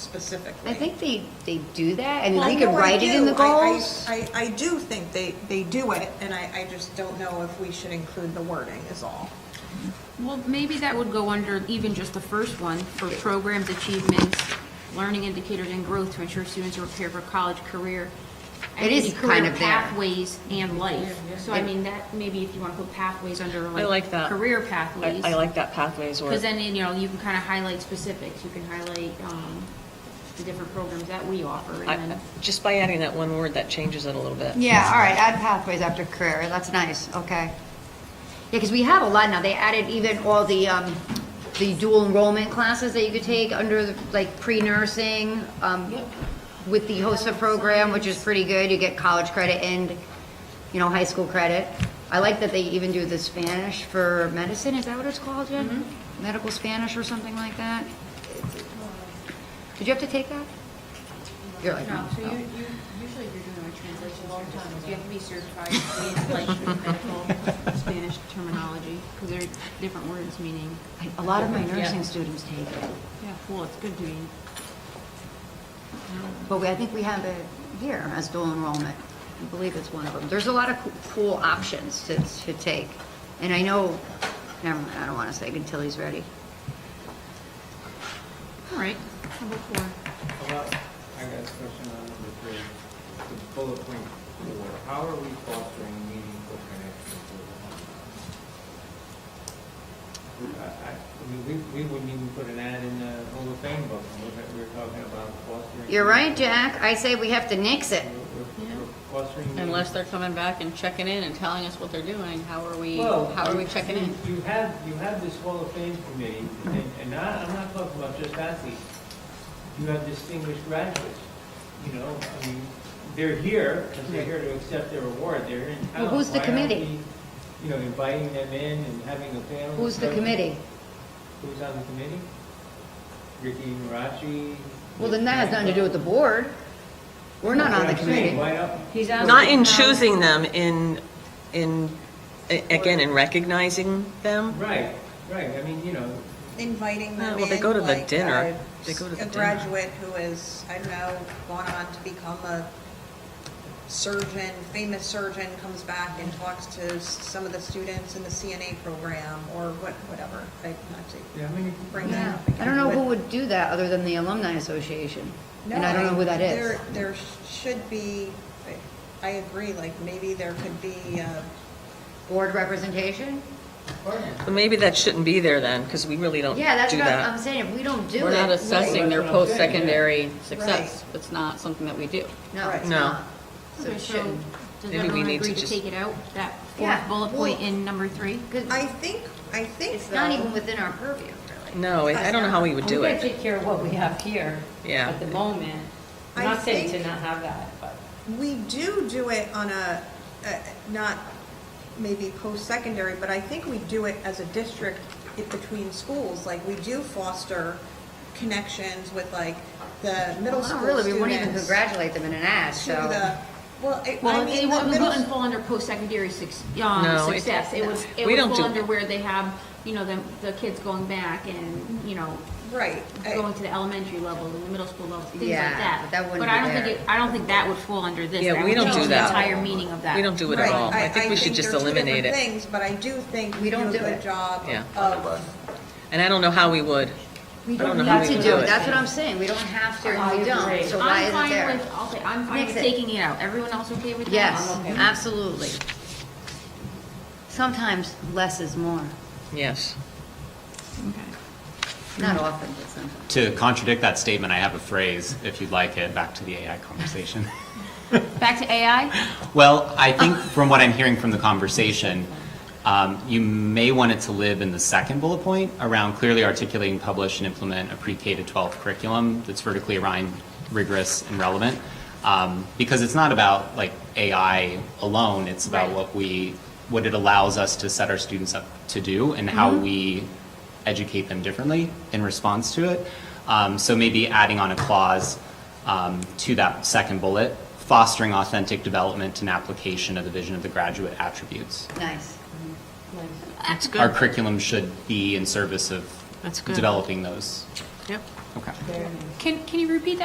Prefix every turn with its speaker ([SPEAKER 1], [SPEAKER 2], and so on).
[SPEAKER 1] specifically.
[SPEAKER 2] I think they, they do that. I mean,
[SPEAKER 1] Well,
[SPEAKER 2] we
[SPEAKER 1] I
[SPEAKER 2] could
[SPEAKER 1] know I
[SPEAKER 2] write it in the
[SPEAKER 1] do. I- I-
[SPEAKER 2] goals.
[SPEAKER 1] I, I do think they, they do it, and I, I just don't know if we should include the wording is all.
[SPEAKER 3] Well, maybe that would go under even just the first one, for programs, achievements, learning indicators, and growth to ensure students are prepared for college, career.
[SPEAKER 2] It is
[SPEAKER 3] and
[SPEAKER 2] kind
[SPEAKER 3] career
[SPEAKER 2] of there.
[SPEAKER 3] Pathways and life. So I mean, that, maybe if you want to put pathways under like.
[SPEAKER 4] like that.
[SPEAKER 3] Career
[SPEAKER 4] I
[SPEAKER 3] pathways.
[SPEAKER 4] I like that pathways
[SPEAKER 3] Because
[SPEAKER 4] word.
[SPEAKER 3] then, you know, you can kind of highlight specifics, you can highlight, um, the different programs that we offer,
[SPEAKER 4] I-
[SPEAKER 3] and then.
[SPEAKER 4] Just by adding that one word, that changes it a little bit.
[SPEAKER 2] Yeah, all right, add pathways after career, that's nice, okay. Yeah, because we have a lot now, they added even all the, um, the dual enrollment classes that you could take under, the- like, pre-nursing, um, with the HOSA program, which is pretty good, you get college credit and, you know, high school credit. I like that they even do the Spanish for medicine, is that what it's called, Jen? Medical Spanish or something like that? Did you have to take that? You're like,
[SPEAKER 3] No, so
[SPEAKER 2] oh.
[SPEAKER 3] you, you, usually if you're doing a translation, sometimes you have to be certified in like medical Spanish terminology, because there are different words meaning,
[SPEAKER 2] A lot of my nursing students take it,
[SPEAKER 3] yeah, well, it's good to be.
[SPEAKER 2] but we, I think we have it here as dual enrollment. I believe it's one of them. There's a lot of coo- cool options to, to take. And I know, never mind, I don't want to say until he's ready.
[SPEAKER 3] All right, number four.
[SPEAKER 5] How about, I got a question on number three, the bullet point four, how are we fostering meaningful connections with alumni? I, I, I mean, we, we wouldn't even put an ad in the Hall of Fame book, we were talking about fostering.
[SPEAKER 2] You're right, Jack. I say we have to nix it.
[SPEAKER 5] We're- we're- we're Fostering.
[SPEAKER 6] Unless
[SPEAKER 5] meaningful-
[SPEAKER 6] they're coming back and checking in and telling us what they're doing, how are we,
[SPEAKER 5] Well,
[SPEAKER 6] how are we
[SPEAKER 5] you-
[SPEAKER 6] checking in?
[SPEAKER 5] You you have, you have this Hall of Fame committee, and, and I, I'm not talking about just athletes. You have distinguished graduates, you know, I mean, they're here, because they're here to accept their award, they're in town.
[SPEAKER 2] Well, who's the
[SPEAKER 5] Why aren't
[SPEAKER 2] committee?
[SPEAKER 5] we, You know, inviting them in and having a panel.
[SPEAKER 2] Who's the
[SPEAKER 5] discussion?
[SPEAKER 2] committee?
[SPEAKER 5] Who's on the committee? Ricky Marachi?
[SPEAKER 2] Well, then that has nothing to do with the board. We're not on the committee.
[SPEAKER 5] Why not?
[SPEAKER 3] He's
[SPEAKER 4] Not in choosing them, in, in, a- again, in recognizing them.
[SPEAKER 5] Right, right, I mean, you know,
[SPEAKER 1] Inviting
[SPEAKER 4] Uh,
[SPEAKER 1] them
[SPEAKER 4] well, they
[SPEAKER 1] in,
[SPEAKER 4] go to the
[SPEAKER 1] like,
[SPEAKER 4] dinner.
[SPEAKER 1] uh,
[SPEAKER 4] They go to the
[SPEAKER 1] A
[SPEAKER 4] dinner.
[SPEAKER 1] graduate who is, I don't know, gone on to become a surgeon, famous surgeon, comes back and talks to s- some of the students in the CNA program, or what, whatever, like, not to
[SPEAKER 5] yeah, I mean,
[SPEAKER 1] bring that
[SPEAKER 2] Yeah.
[SPEAKER 1] up.
[SPEAKER 2] I don't know who would do that other than the Alumni Association.
[SPEAKER 1] No,
[SPEAKER 2] And I don't know who that is.
[SPEAKER 1] There, there should be, I agree, like, maybe there could be, uh,
[SPEAKER 2] Board representation?
[SPEAKER 4] But maybe that shouldn't be there then, because we really don't do
[SPEAKER 2] Yeah, that's what I'm
[SPEAKER 4] that.
[SPEAKER 2] saying. If we don't do it.
[SPEAKER 6] We're not assessing their
[SPEAKER 5] Right. That's what I'm saying,
[SPEAKER 6] post-secondary success. It's not something that we do.
[SPEAKER 2] No, it's
[SPEAKER 1] Right.
[SPEAKER 4] No.
[SPEAKER 2] not. So
[SPEAKER 3] Okay,
[SPEAKER 2] it
[SPEAKER 3] so,
[SPEAKER 2] shouldn't.
[SPEAKER 3] does
[SPEAKER 4] Maybe we
[SPEAKER 3] everyone
[SPEAKER 4] need to
[SPEAKER 3] agree to
[SPEAKER 4] just-
[SPEAKER 3] take it out, that
[SPEAKER 2] Yeah,
[SPEAKER 3] fourth bullet
[SPEAKER 2] well-
[SPEAKER 3] point in number three?
[SPEAKER 1] I think, I think.
[SPEAKER 2] It's not
[SPEAKER 1] though-
[SPEAKER 2] even within our purview, really.
[SPEAKER 4] No, I I don't know how we would do
[SPEAKER 7] We gotta
[SPEAKER 4] it.
[SPEAKER 7] take care of what we have here.
[SPEAKER 4] Yeah.
[SPEAKER 7] At the moment. I'm
[SPEAKER 1] I
[SPEAKER 7] not saying to
[SPEAKER 1] think-
[SPEAKER 7] not have that, but.
[SPEAKER 1] We do do it on a, a- not maybe post-secondary, but I think we do it as a district i- between schools. Like, we do foster connections with like the middle
[SPEAKER 2] Well, not
[SPEAKER 1] school
[SPEAKER 2] really, we wouldn't even
[SPEAKER 1] students.
[SPEAKER 2] congratulate them in an ad,
[SPEAKER 1] To the,
[SPEAKER 2] so.
[SPEAKER 1] well, it- I
[SPEAKER 3] Well, it
[SPEAKER 1] mean, the
[SPEAKER 3] wouldn't, it
[SPEAKER 1] middle,
[SPEAKER 3] wouldn't
[SPEAKER 1] s-
[SPEAKER 3] fall under post-secondary suc- um,
[SPEAKER 4] No, it-
[SPEAKER 3] success. It would,
[SPEAKER 4] we
[SPEAKER 3] it would
[SPEAKER 4] don't
[SPEAKER 3] fall
[SPEAKER 4] do-
[SPEAKER 3] under where they have, you know, the, the kids going back and, you know,
[SPEAKER 1] right. I-
[SPEAKER 3] going to the elementary level and the middle school level, things like
[SPEAKER 2] Yeah,
[SPEAKER 3] that.
[SPEAKER 2] but that wouldn't
[SPEAKER 3] I
[SPEAKER 2] be
[SPEAKER 3] don't
[SPEAKER 2] there.
[SPEAKER 3] think, it- I don't think that would fall under this.
[SPEAKER 4] Yeah,
[SPEAKER 3] That
[SPEAKER 4] we
[SPEAKER 3] would
[SPEAKER 4] don't do
[SPEAKER 3] change
[SPEAKER 4] that.
[SPEAKER 3] The entire meaning of that.
[SPEAKER 4] We don't do it at
[SPEAKER 1] Right.
[SPEAKER 4] all. I think we should just
[SPEAKER 1] they're two
[SPEAKER 4] eliminate
[SPEAKER 1] different
[SPEAKER 4] it.
[SPEAKER 1] Things, but I do think
[SPEAKER 2] We
[SPEAKER 1] we
[SPEAKER 2] don't
[SPEAKER 1] do a
[SPEAKER 2] do
[SPEAKER 1] good
[SPEAKER 2] it.
[SPEAKER 1] job
[SPEAKER 4] Yeah.
[SPEAKER 1] of,
[SPEAKER 4] And I don't know how we would.
[SPEAKER 2] We
[SPEAKER 4] don't know
[SPEAKER 2] don't
[SPEAKER 4] how
[SPEAKER 2] need
[SPEAKER 4] we
[SPEAKER 2] to
[SPEAKER 4] would
[SPEAKER 2] do
[SPEAKER 4] do
[SPEAKER 2] it,
[SPEAKER 4] it.
[SPEAKER 2] that's what I'm saying, we don't have to,
[SPEAKER 7] I
[SPEAKER 2] and we don't,
[SPEAKER 7] agree.
[SPEAKER 2] so why is it
[SPEAKER 3] I'm fine
[SPEAKER 2] there?
[SPEAKER 3] with, I'll say, I'm fine
[SPEAKER 2] Mix
[SPEAKER 3] with
[SPEAKER 2] it.
[SPEAKER 3] taking it out. Everyone else okay with that?
[SPEAKER 2] Yes,
[SPEAKER 7] I'm okay.
[SPEAKER 2] absolutely. Sometimes less is more,
[SPEAKER 4] Yes.
[SPEAKER 2] not often, but sometimes.
[SPEAKER 8] To contradict that statement, I have a phrase, if you'd like it, back to the AI conversation.
[SPEAKER 3] Back to AI?
[SPEAKER 8] Well, I think from what I'm hearing from the conversation, um, you may want it to live in the second bullet point around clearly articulating, publish, and implement a pre-K to 12 curriculum that's vertically aligned, rigorous, and relevant. Um, Because it's not about like AI alone, it's about
[SPEAKER 3] Right.
[SPEAKER 8] what we, what it allows us to set our students up to do and how we educate them differently in response to it. Um, So maybe adding on a clause um, to that second bullet, fostering authentic development and application of the vision of the graduate attributes.
[SPEAKER 2] Nice.
[SPEAKER 4] That's
[SPEAKER 8] Our
[SPEAKER 4] good.
[SPEAKER 3] Uh,
[SPEAKER 8] curriculum should be in service of
[SPEAKER 4] That's good.
[SPEAKER 8] developing those.
[SPEAKER 4] Yep.
[SPEAKER 8] Okay.
[SPEAKER 7] Very nice.
[SPEAKER 3] Can, can you repeat that?